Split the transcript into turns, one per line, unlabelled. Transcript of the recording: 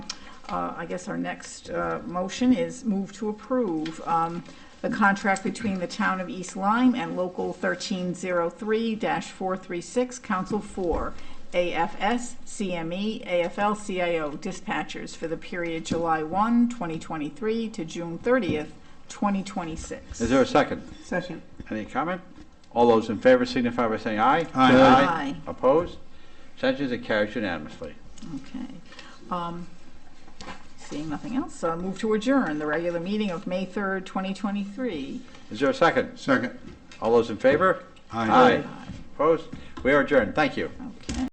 uh, I guess our next uh, motion is move to approve um, the contract between the town of East Lyme and Local 1303-436, Council 4, AFS, CME, AFL-CIO dispatchers for the period July 1, 2023 to June 30th, 2026.
Is there a second?
Second.
Any comment? All those in favor signify by saying aye.
Aye.
Aye.
Opposed? Abstentions, it carries unanimously.
Okay. Um, Seeing nothing else, uh, move to adjourn the regular meeting of May 3rd, 2023.
Is there a second?
Second.
All those in favor?
Aye.
Opposed? We are adjourned. Thank you.
Okay.